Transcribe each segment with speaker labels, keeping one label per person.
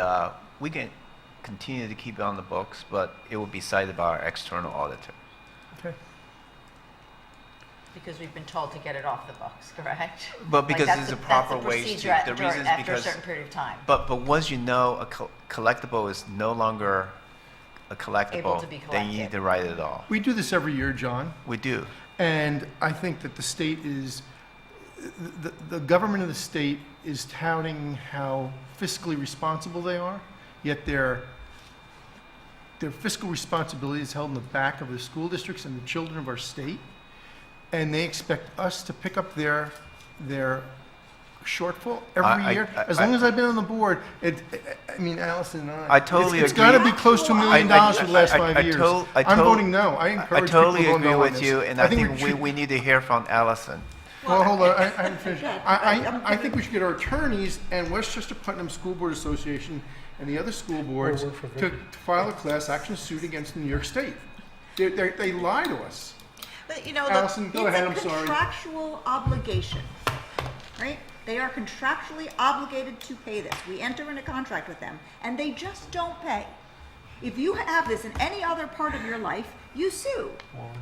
Speaker 1: uh, we can continue to keep it on the books, but it will be cited by our external auditor.
Speaker 2: Okay.
Speaker 3: Because we've been told to get it off the books, correct?
Speaker 1: But
Speaker 3: Like,
Speaker 1: because
Speaker 3: that's
Speaker 1: it's
Speaker 3: the-
Speaker 1: a
Speaker 3: that's
Speaker 1: proper
Speaker 3: the
Speaker 1: way
Speaker 3: procedure
Speaker 1: to-
Speaker 3: at-
Speaker 1: the
Speaker 3: during-
Speaker 1: reason is
Speaker 3: After a
Speaker 1: because-
Speaker 3: certain period of time,
Speaker 1: But, but once you know a col- collectible is no longer a collectible,
Speaker 3: Able to be
Speaker 1: then you need
Speaker 3: collected.
Speaker 1: to write it off.
Speaker 2: We do this every year, John,
Speaker 1: We do.
Speaker 2: and I think that the state is, the, the government of the state is touting how fiscally responsible they are, yet their, their fiscal responsibility is held in the back of the school districts and the children of our state, and they expect us to pick up their, their shortfall
Speaker 1: I- I-
Speaker 2: every year. As
Speaker 1: I-
Speaker 2: long as I've been on the board, it, I- I mean, Allison and I.
Speaker 1: I totally
Speaker 2: it's- It's
Speaker 1: agree.
Speaker 2: gotta be close to a million
Speaker 1: I- I-
Speaker 2: dollars for the last
Speaker 1: I- I- I
Speaker 2: five years.
Speaker 1: tol- I
Speaker 2: I'm
Speaker 1: tol-
Speaker 2: voting no. I
Speaker 1: I I
Speaker 2: encourage people to
Speaker 1: totally
Speaker 2: vote
Speaker 1: agree
Speaker 2: no on
Speaker 1: with
Speaker 2: this.
Speaker 1: you, and I think we,
Speaker 2: should-
Speaker 1: we need to hear from Allison.
Speaker 2: Well, hold on, I, I haven't finished. I, I, I think we should get our attorneys and Westchester Putnam School Board Association and the other school boards
Speaker 4: work for
Speaker 2: to to file a class action suit against New York State. They, they, they lie to us.
Speaker 5: But you know, the-
Speaker 2: Allison, go ahead, I'm
Speaker 5: It's a
Speaker 2: sorry.
Speaker 5: contractual obligation, right? They are contractually obligated to pay this. We enter in a contract with them, and they just don't pay. If you have this in any other part of your life, you sue,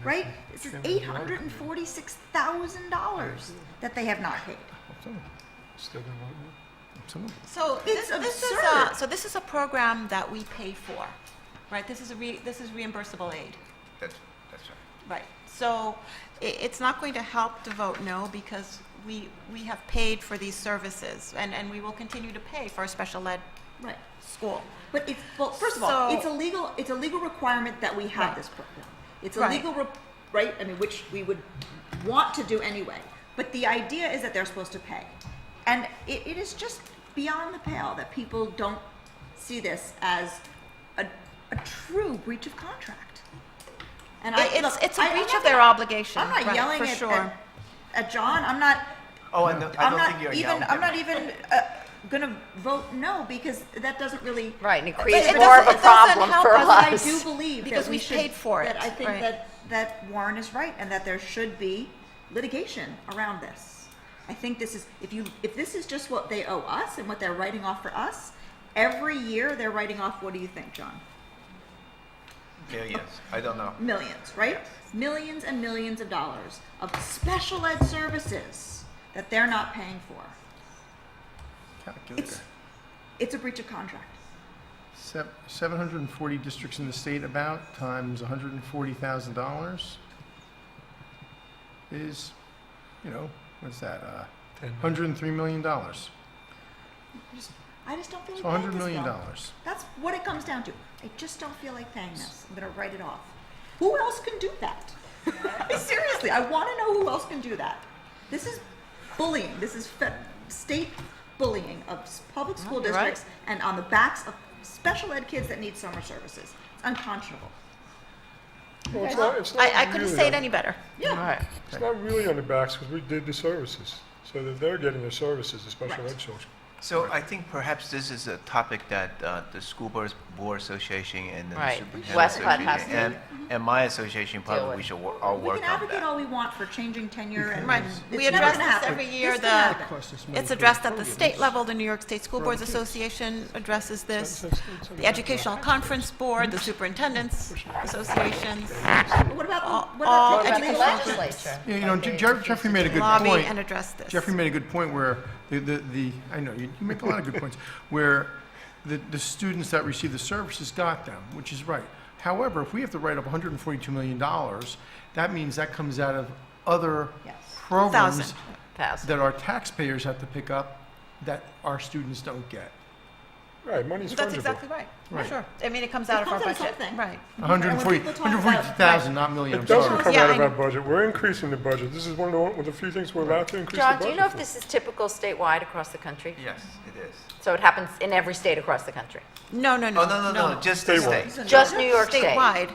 Speaker 5: right? This is eight hundred and forty-six thousand dollars that they have not paid.
Speaker 4: Still gonna vote no?
Speaker 6: So
Speaker 5: It's
Speaker 6: this, this is
Speaker 5: absurd.
Speaker 6: a, so this is a program that we pay for, right? This is a re, this is reimbursable aid,
Speaker 1: That's, that's right.
Speaker 6: right? So i it's not going to help to vote no because we, we have paid for these services and, and we will continue to pay for a special ed
Speaker 5: Right.
Speaker 6: school.
Speaker 5: But it's, well, first of all,
Speaker 6: So-
Speaker 5: it's a legal, it's a legal requirement that we have
Speaker 6: Right.
Speaker 5: this program. It's a
Speaker 6: Right.
Speaker 5: legal, re- right, I mean, which we would want to do anyway. But the idea is that they're supposed to pay. And it, it is just beyond the pale that people don't see this as a, a true breach of contract. And I,
Speaker 6: It- it's-
Speaker 5: look,
Speaker 6: it's a
Speaker 5: I- I'm
Speaker 6: breach
Speaker 5: not
Speaker 6: of their
Speaker 5: gonna-
Speaker 6: obligation,
Speaker 5: I'm not
Speaker 6: right,
Speaker 5: yelling
Speaker 6: for
Speaker 5: at- at,
Speaker 6: sure.
Speaker 5: at John, I'm not,
Speaker 1: Oh, I know- I
Speaker 5: I'm
Speaker 1: don't
Speaker 5: not
Speaker 1: think you're
Speaker 5: even,
Speaker 1: yelling.
Speaker 5: I'm not even uh, gonna vote no because that doesn't really.
Speaker 3: Right, and it
Speaker 5: But
Speaker 3: creates
Speaker 5: it
Speaker 3: more of
Speaker 5: doesn't-
Speaker 3: a
Speaker 5: it
Speaker 6: doesn't
Speaker 3: problem
Speaker 6: help
Speaker 3: for
Speaker 6: us.
Speaker 5: But I
Speaker 3: us.
Speaker 5: do believe
Speaker 6: Because
Speaker 5: that we
Speaker 6: we
Speaker 5: should.
Speaker 6: paid for it,
Speaker 5: That I think
Speaker 6: right.
Speaker 5: that, that Warren is right and that there should be litigation around this. I think this is, if you, if this is just what they owe us and what they're writing off for us, every year they're writing off, what do you think, John?
Speaker 1: Millions, I don't know.
Speaker 5: Millions, right? Millions and millions of dollars of special ed services that they're not paying for.
Speaker 2: Calculator.
Speaker 5: It's, it's a breach of contract.
Speaker 2: Sev- 740 districts in the state about, times $140,000 is, you know, what's that, uh,
Speaker 4: Ten no.
Speaker 2: $103 million. It's
Speaker 5: I just don't feel like paying
Speaker 2: $100
Speaker 5: this
Speaker 2: million.
Speaker 5: bill. That's what it comes down to. I just don't feel like paying this. I'm gonna write it off. Who else can do that? Seriously, I want to know who else can do that. This is bullying. This is fe- state bullying of s- public
Speaker 6: Oh,
Speaker 5: school
Speaker 3: you're right.
Speaker 5: districts and on the backs of special ed kids that need summer services. It's unconscionable.
Speaker 4: Well, it's not, it's not
Speaker 6: I, I couldn't
Speaker 4: really
Speaker 6: say
Speaker 4: on-
Speaker 6: it any better.
Speaker 5: Yeah.
Speaker 3: Right.
Speaker 4: It's not really on the backs, because we did the services, so that they're getting their services, the special
Speaker 5: Right.
Speaker 4: ed children.
Speaker 1: So I think perhaps this is a topic that uh, the School Boards Board Association and the
Speaker 3: Right.
Speaker 1: Superintendent
Speaker 3: Westcott has
Speaker 1: Association and, and my association probably we
Speaker 3: with.
Speaker 1: should wo- all
Speaker 5: We
Speaker 1: work
Speaker 5: can
Speaker 1: on
Speaker 5: advocate
Speaker 1: that.
Speaker 5: all we want for changing tenure and
Speaker 6: Right.
Speaker 5: it's
Speaker 6: We
Speaker 5: never
Speaker 6: address
Speaker 5: gonna
Speaker 6: this
Speaker 5: happen.
Speaker 6: every year,
Speaker 5: This
Speaker 6: the-
Speaker 5: can happen.
Speaker 2: cost us money
Speaker 6: It's
Speaker 2: for
Speaker 6: addressed at the
Speaker 2: podium.
Speaker 6: state level, the New York State School Boards
Speaker 2: kids.
Speaker 6: Association addresses this,
Speaker 4: It's- it's- it's-
Speaker 6: the Educational Conference Board, the Superintendent's Associations,
Speaker 5: But What about,
Speaker 6: all-
Speaker 5: the- what
Speaker 6: all
Speaker 5: about the
Speaker 6: education-
Speaker 5: education?
Speaker 3: legislature.
Speaker 2: Yeah, you know, Je- Jeff- Jeffrey made a good point.
Speaker 6: lobby and address this.
Speaker 2: Jeffrey made a good point where the, the, the I know, you, you make a lot of good points, where the, the students that receive the services got them, which is right. However, if we have to write up $142 million, that means that comes out of other
Speaker 5: Yes.
Speaker 2: programs
Speaker 6: Thousand.
Speaker 3: Thousand.
Speaker 2: that our taxpayers have to pick up that our students don't get.
Speaker 4: Right, money's fungible.
Speaker 6: That's exactly right.
Speaker 2: Right.
Speaker 6: Sure. I mean, it comes
Speaker 5: It
Speaker 6: out of our
Speaker 5: comes out of
Speaker 6: budget.
Speaker 5: something.
Speaker 6: Right.
Speaker 5: when
Speaker 2: 140,
Speaker 5: people talk about-
Speaker 2: 140,000, not million, I'm
Speaker 4: It doesn't
Speaker 2: sorry.
Speaker 4: come
Speaker 6: Yeah,
Speaker 4: out of
Speaker 6: I
Speaker 4: our
Speaker 6: know.
Speaker 4: budget, we're increasing the budget, this is one of the, one of the few things we're allowed to increase the
Speaker 3: John,
Speaker 4: budget.
Speaker 3: do you know if
Speaker 4: for.
Speaker 3: this is typical statewide across the country?
Speaker 1: Yes, it is.
Speaker 3: So it happens in every state across the country,
Speaker 6: No, no, no.
Speaker 1: Oh, no, no, no, just the
Speaker 4: Stay
Speaker 1: state.
Speaker 4: woke.
Speaker 3: just New York State?
Speaker 6: Statewide.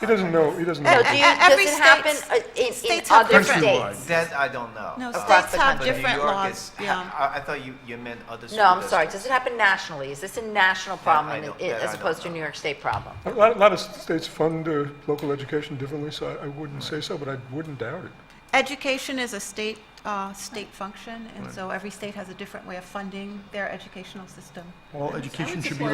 Speaker 4: He doesn't know, he doesn't
Speaker 3: So
Speaker 4: know.
Speaker 3: Uh, do you,
Speaker 6: E-
Speaker 3: does
Speaker 6: every
Speaker 3: it happen
Speaker 6: state's-
Speaker 3: uh, in, in
Speaker 6: states have
Speaker 3: other
Speaker 2: different-
Speaker 3: states?
Speaker 1: That I don't know.
Speaker 6: No,
Speaker 1: Uh,
Speaker 3: Across
Speaker 6: states
Speaker 3: the
Speaker 6: have
Speaker 1: but
Speaker 3: country.
Speaker 1: New
Speaker 6: different
Speaker 1: York
Speaker 6: laws,
Speaker 1: is-
Speaker 6: yeah.
Speaker 1: I, I thought you, you meant other school
Speaker 3: No, I'm sorry,
Speaker 1: districts.
Speaker 3: does it happen nationally? Is this a national
Speaker 1: I
Speaker 3: problem
Speaker 1: don't-
Speaker 3: i-
Speaker 1: that I
Speaker 3: as
Speaker 1: don't
Speaker 3: opposed to a
Speaker 1: know.
Speaker 3: New York State problem?
Speaker 4: A lot, a lot of states fund uh, local education differently, so I- I wouldn't say so, but I wouldn't doubt it.
Speaker 6: Education is a state, uh, state function, and so every state has a different way of funding their educational system.
Speaker 2: All education should be
Speaker 6: support